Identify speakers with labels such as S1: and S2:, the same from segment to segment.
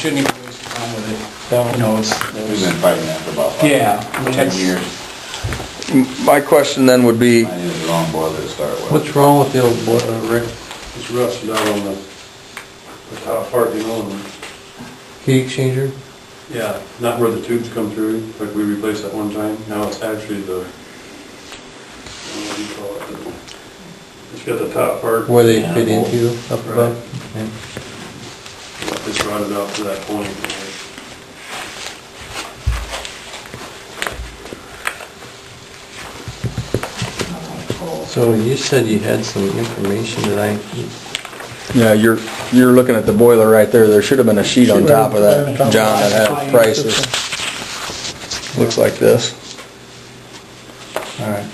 S1: shouldn't even waste your time with
S2: Yeah.
S1: it. You know, it's,
S3: We've been fighting that for about five-
S1: yeah. I mean,
S3: ten
S1: it's-
S3: years.
S4: My question then would be,
S3: I needed the wrong boiler to start with.
S2: What's wrong with the old boiler, Rick?
S5: It's rust down on the, the top part, you know, and,
S2: Heat exchanger?
S5: yeah, not where the tubes come through, like we replaced that one time, now it's actually the, I don't know what do you call it, the- it's got the top part,
S2: Where they fit into up above?
S5: Right.
S2: Yeah.
S5: it's rotted out to that point.
S2: So you said you had some information that I,
S4: yeah, you're, you're looking at the boiler right there, there should have been a sheet on top of that, John, that had prices. Looks like this.
S2: all right.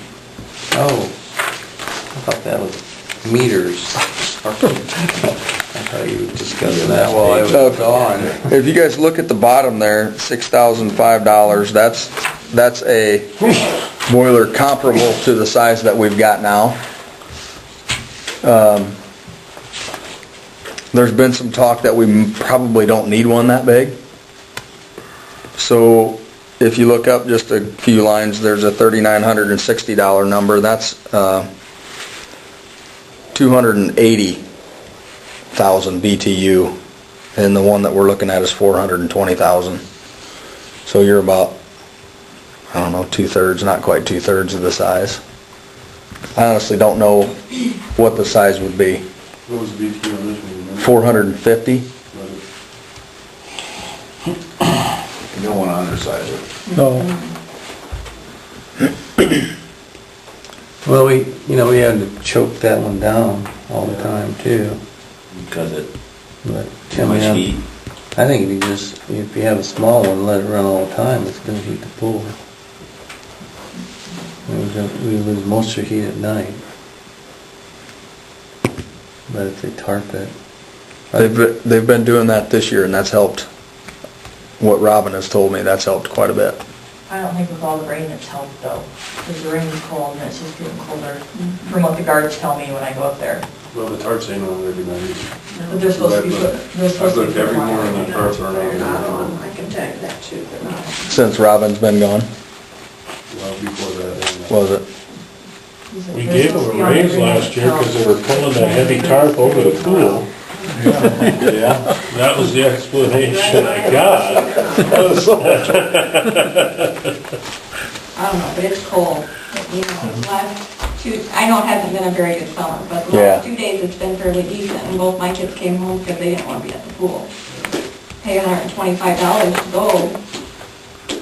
S2: Oh, I thought that was meters. I thought you were discussing that while I was gone.
S4: If you guys look at the bottom there, six thousand five dollars, that's, that's a boiler comparable to the size that we've got now. Um, There's been some talk that we m- probably don't need one that big. So if you look up just a few lines, there's a thirty-nine hundred and sixty dollar number, that's, uh, two hundred and eighty thousand BTU, and the one that we're looking at is four hundred and twenty thousand. So you're about, I don't know, two-thirds, not quite two-thirds of the size. I honestly don't know what the size would be,
S5: What was the BT on this one? you remember?
S4: four hundred and fifty?
S5: Was it-
S3: You don't wanna undersize it.
S2: Well, we, you know, we had to choke that one down all the time too,
S3: Because it,
S2: but. I
S3: too much
S2: mean,
S3: heat.
S2: I think if you just, if you have a small one, let it run all the time, it's gonna heat the pool. We don't- we lose most of the heat at night. But if they tarp it,
S4: They've, been- they've been doing that this year, and that's helped. What Robin has told me, that's helped quite a bit.
S6: I don't think with all the rain it's helped though, because the rain's cold and it's just getting colder, from what the guards tell me when I go up there.
S5: Well, the tarps ain't on every night.
S6: But they're supposed to be, put- they're supposed to be.
S5: I've looked every
S6: put on.
S5: morning, the tarps aren't on.
S6: They're not on. I can tell you that too, they're not on.
S4: Since Robin's been gone,
S5: well, before that.
S4: was it?
S7: We gave them a raise last year because they were pulling that heavy tarp over the pool. Yeah, that was the explanation I got.
S8: I don't know, but it's cold. You
S7: Mm-hmm.
S8: know, last two, I know it hasn't been a very good summer, but the
S4: Yeah.
S8: last two days it's been fairly decent, and both my kids came home because they didn't want to be at the pool. Pay hundred and twenty-five dollars to go,
S6: I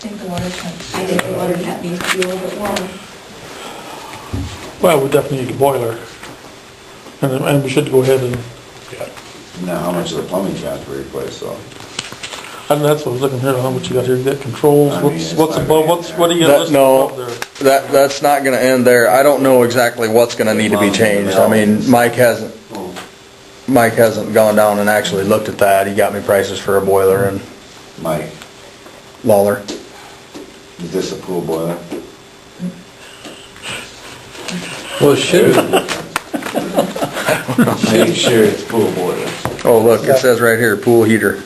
S6: think the water tanks.
S8: I think the water tap needs to be a little bit warmer.
S7: Well, we definitely need a boiler. And, and we should go ahead and,
S3: Now, how much of the plumbing got to replace though?
S7: and that's what I was looking here, how much you got here, you got controls,
S3: I mean,
S7: what's,
S3: it's
S7: what's
S3: not
S7: above,
S3: gonna
S7: what's,
S3: be
S7: what do you
S4: That-
S7: got listed
S4: no.
S7: above there?
S4: That, that's not gonna end there. I don't know exactly what's gonna need to be changed. I mean, Mike hasn't, Mike hasn't gone down and actually looked at that. He got me prices for a boiler and
S3: Mike,
S4: Lawler.
S3: is this a pool boiler?
S2: well, shoot,
S3: Make sure it's pool boiler.
S4: Oh, look, it says right here, pool heater.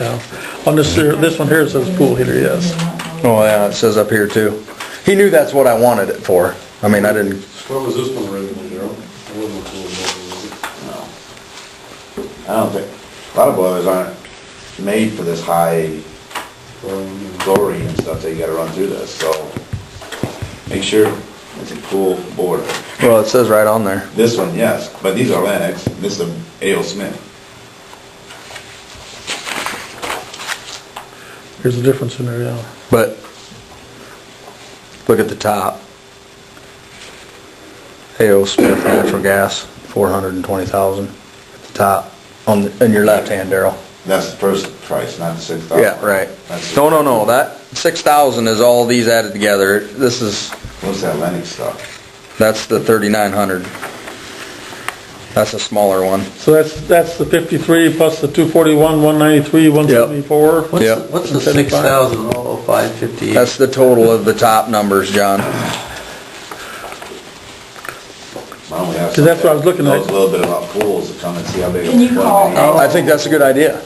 S7: Yeah. On this, here- this one here, it says pool heater, yes.
S6: Mm-hmm.
S4: Oh, yeah, it says up here too. He knew that's what I wanted it for. I mean, I didn't,
S5: What was this one originally, Darryl? It wasn't a pool boiler, was it?
S3: No. I don't think, a lot of boilers aren't made for this high
S5: Um,
S3: glory and stuff that you gotta run through this, so make sure it's a pool boiler.
S4: well, it says right on there.
S3: This one, yes, but these are Lennox, this is A.O. Smith.
S7: Here's the difference in there, yeah.
S4: But, look at the top. A.O. Smith Natural Gas, four hundred and twenty thousand at the top, on, the- in your left hand, Daryl.
S3: That's the first price, not the six thousand.
S4: Yeah, right.
S3: That's-
S4: No, no, no, that, six thousand is all these added together. This is,
S3: What's that Lennox stuff?
S4: that's the thirty-nine hundred. That's a smaller one.
S7: So that's, that's the fifty-three plus the two forty-one, one ninety-three, one seventy-four.
S2: what's,
S4: Yeah.
S2: the- what's the six thousand oh five fifty-eight?
S4: That's the total of the top numbers, John.
S3: Why don't we have that's.
S7: Because that's what I was looking at.
S3: Knows a little bit about pools, to come and see how big. a
S6: Can you
S3: one
S6: call
S3: is.
S4: Oh,
S3: Oh.
S4: I think that's a good idea.